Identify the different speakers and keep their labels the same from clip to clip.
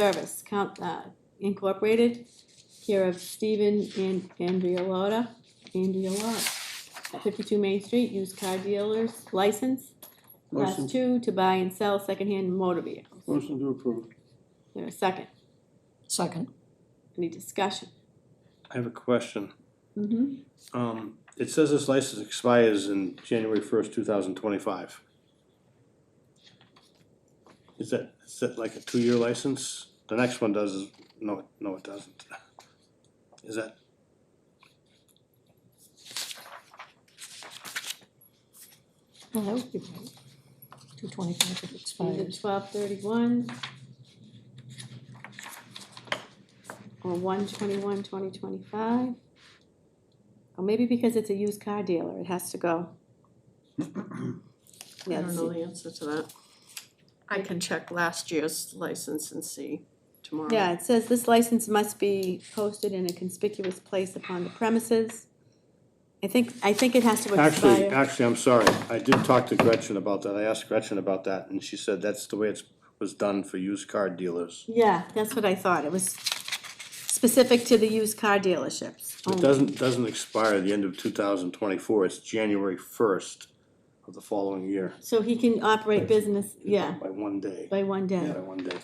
Speaker 1: Service Count- uh, Incorporated, care of Stephen and Andrea Lotta, Andrea Lotta, at 52 Main Street, used car dealers license, class
Speaker 2: Motion,
Speaker 1: two, to buy and sell secondhand motor vehicles.
Speaker 2: motion to approve.
Speaker 1: There a second?
Speaker 3: Second.
Speaker 1: Any discussion?
Speaker 4: I have a question.
Speaker 1: Mm-hmm.
Speaker 4: Um, it says this license expires in January first, two thousand twenty-five. Is that, is that like a two-year license? The next one does, is- no, no, it doesn't. Is that?
Speaker 3: Well, Oh, that would be right. Two twenty-five if it
Speaker 1: Either
Speaker 3: expires.
Speaker 1: 1231 or 121, 2025. Or maybe because it's a used car dealer, it has to go.
Speaker 5: I
Speaker 1: Yeah,
Speaker 5: don't know the answer to that. I can check last year's license and see tomorrow.
Speaker 1: Yeah, it says this license must be posted in a conspicuous place upon the premises. I think, I think it has to
Speaker 4: Actually,
Speaker 1: expire.
Speaker 4: actually, I'm sorry. I did talk to Gretchen about that. I asked Gretchen about that and she said that's the way it's, was done for used car dealers.
Speaker 1: Yeah, that's what I thought. It was specific to the used car dealerships.
Speaker 4: It
Speaker 1: only.
Speaker 4: doesn't, doesn't expire at the end of two thousand twenty-four. It's January first of the following year.
Speaker 1: So he can operate business, yeah,
Speaker 4: By one day.
Speaker 1: by one day.
Speaker 4: Yeah, one day.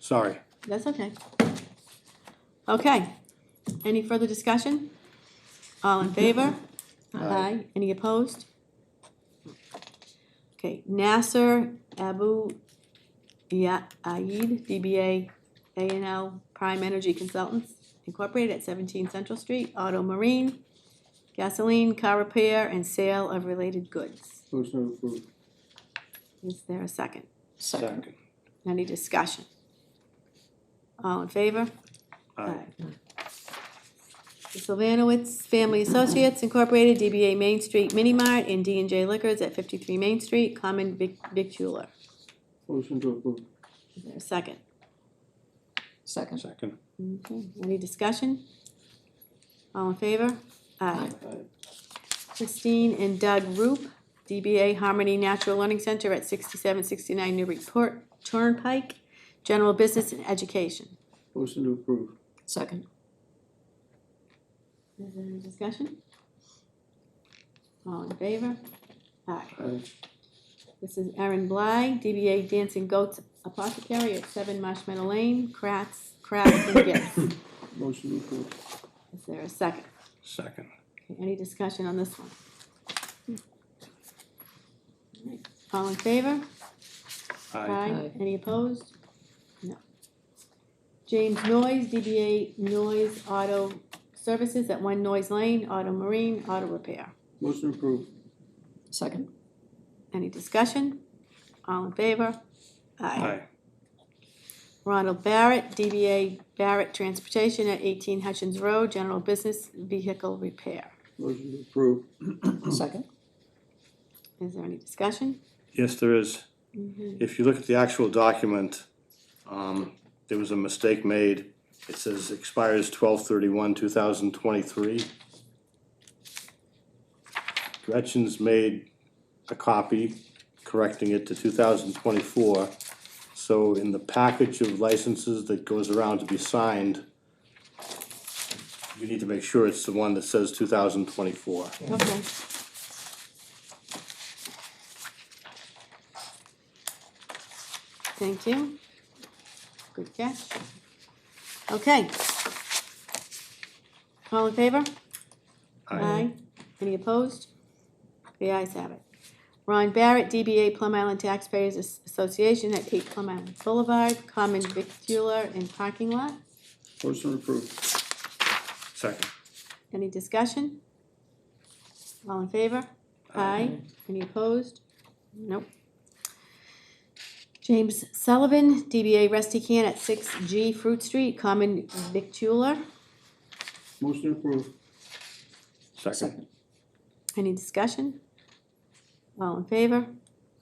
Speaker 4: Sorry.
Speaker 1: That's okay. Okay, any further discussion? All in favor? Aye. Any opposed? Okay, Nasser Abu Ya- Aid, DBA A and L Prime Energy Consultants Incorporated at seventeen Central Street, Auto Marine, gasoline, car repair, and sale of related goods.
Speaker 2: Motion to approve.
Speaker 1: Is there a second?
Speaker 3: Second.
Speaker 1: Any discussion? All in favor?
Speaker 4: Aye.
Speaker 1: The Sylvanowitz Family Associates Incorporated, DBA Main Street Mini Mart and d and J Liquors at 53 Main Street, common vic- victualler.
Speaker 2: Motion to approve.
Speaker 1: Is there a second?
Speaker 3: Second.
Speaker 4: Second.
Speaker 1: Okay, any discussion? All in favor? Aye.
Speaker 2: Aye.
Speaker 1: Christine and Doug Roop, DBA Harmony Natural Learning Center at 6769 Newburyport Turnpike, general business and education.
Speaker 2: Motion to approve.
Speaker 3: Second.
Speaker 1: Is there any discussion? All in favor? Aye.
Speaker 2: Aye.
Speaker 1: This is Erin Bly, DBA Dancing Goats Apothecary at Seven Marshmallow Lane, Crafts, Crafts and Gifts.
Speaker 2: Motion to approve.
Speaker 1: Is there a second?
Speaker 4: Second.
Speaker 1: Okay, Any discussion on this one? All in favor?
Speaker 4: Aye.
Speaker 3: Aye.
Speaker 1: Any opposed? No. James Noyes, DBA Noyes Auto Services at One Noise Lane, Auto Marine, Auto Repair.
Speaker 2: Motion to approve.
Speaker 3: Second.
Speaker 1: Any discussion? All in favor? Ronald Barrett, DBA Barrett Transportation at 18 Hutchins Road, General Business Vehicle Repair.
Speaker 2: Motion to approve.
Speaker 3: Second.
Speaker 1: Is there any discussion?
Speaker 4: Yes, there is. If you look at the actual document, um, there was a mistake made. It says expires twelve thirty-one, two thousand twenty-three. Gretchen's made a copy, correcting it to two thousand twenty-four. So in the package of licenses that goes around to be signed, you need to make sure it's the one that says two thousand twenty-four.
Speaker 1: Okay. Thank you. Good catch. Okay. All in favor? Aye. Any opposed? The ayes have it. Ron Barrett, DBA Plum Island Taxpayers As- Association at 8 Plum Island Boulevard, common victular and parking lot.
Speaker 2: Motion to approve.
Speaker 4: Second.
Speaker 1: Any discussion? All in favor? Aye. Any opposed? Nope. James Sullivan, DBA Rusty Can at 6G Fruit Street, common victular.
Speaker 2: Motion to approve.
Speaker 4: Second.
Speaker 1: Any discussion? All in favor?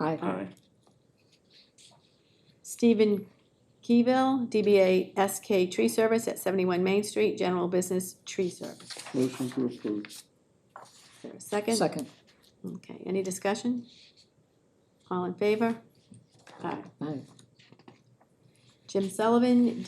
Speaker 3: Aye.
Speaker 4: Aye.
Speaker 1: Stephen Keyville, DBA SK Tree Service at 71 Main Street, general business tree service.
Speaker 2: Motion to approve.
Speaker 1: Is there a second?
Speaker 3: Second.
Speaker 1: Okay, any discussion? All in favor? Aye.
Speaker 3: Aye.
Speaker 1: Jim Sullivan,